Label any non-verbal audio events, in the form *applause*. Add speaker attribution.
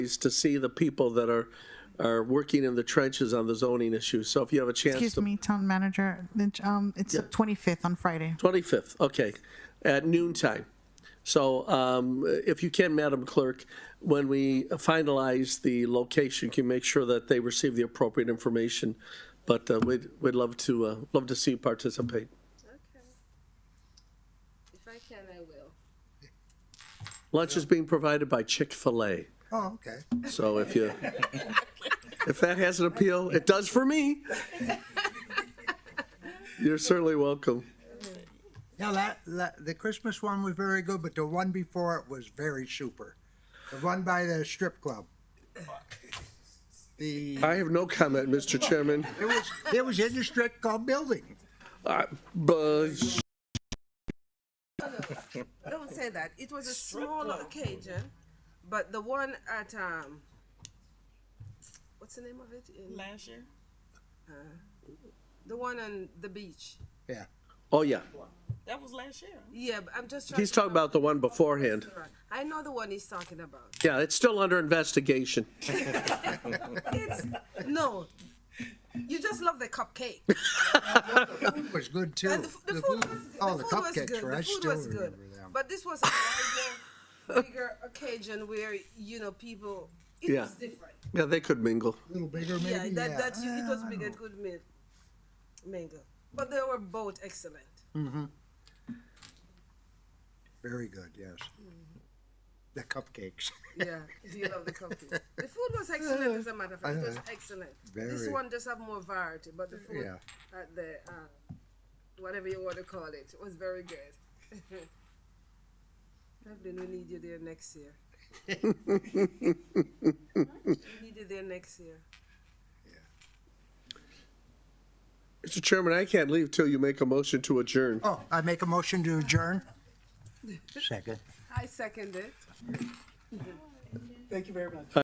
Speaker 1: is to see the people that are, are working in the trenches on the zoning issues. So if you have a chance
Speaker 2: Excuse
Speaker 1: to,
Speaker 2: me, town manager, Lynch, um, it's the 25th on Friday.
Speaker 1: 25th, okay, at noon time. So um, if you can, Madam Clerk, when we finalize the location, can you make sure that they receive the appropriate information? But uh, we'd, we'd love to, uh, love to see you participate.
Speaker 3: Okay. If I can, I will.
Speaker 1: Lunch is being provided by Chick-fil-A.
Speaker 4: Oh, okay.
Speaker 1: So if you, if that has an appeal, it does for me. You're certainly welcome.
Speaker 4: Yeah, that, that, the Christmas one was very good, but the one before it was very super. The one by the strip club. The,
Speaker 1: I have no comment, Mr. Chairman.
Speaker 4: it was, it was in the strip club building.
Speaker 1: Uh, But
Speaker 3: Don't say that. It was a smaller occasion, but the one at um, what's the name of it? In,
Speaker 5: last year?
Speaker 3: the one on the beach.
Speaker 4: Yeah.
Speaker 1: Oh, yeah.
Speaker 5: That was last year.
Speaker 3: Yeah, but I'm just trying.
Speaker 1: He's
Speaker 3: to
Speaker 1: talking
Speaker 3: remember
Speaker 1: about the one
Speaker 3: the
Speaker 1: beforehand.
Speaker 3: restaurant. I know the one he's talking about.
Speaker 1: Yeah, it's still under investigation.
Speaker 3: It's no. You just love the cupcake.
Speaker 4: It was good too.
Speaker 3: And the, f- the food was good.
Speaker 4: Oh,
Speaker 3: the
Speaker 4: the
Speaker 3: food was good.
Speaker 4: cupcakes were, I
Speaker 3: the food
Speaker 4: still
Speaker 3: was good.
Speaker 4: remember them.
Speaker 3: But this was a larger, bigger occasion where you know people. It
Speaker 1: Yeah.
Speaker 3: was different.
Speaker 1: Yeah, they could mingle.
Speaker 4: A little bigger
Speaker 3: Yeah,
Speaker 4: maybe,
Speaker 3: that
Speaker 4: yeah.
Speaker 3: that you, it was big and good meal, mango. But they were both excellent.
Speaker 4: Very good, yes. The cupcakes.
Speaker 3: Yeah, do you love the cupcake? The food was excellent, as a matter of fact. It was
Speaker 4: Uh-huh.
Speaker 3: excellent. This
Speaker 4: Very.
Speaker 3: one just have more variety, but the food
Speaker 4: Yeah.
Speaker 3: at the uh, whatever you want to call it was very good. *laughs* Evelyn, we need you there next
Speaker 4: *laughs*
Speaker 3: year. we need you there next year.
Speaker 1: Mr. Chairman, I can't leave till you make a motion to adjourn.
Speaker 4: Oh, I make a motion to adjourn? Second.
Speaker 3: I second it.
Speaker 4: Thank you very much.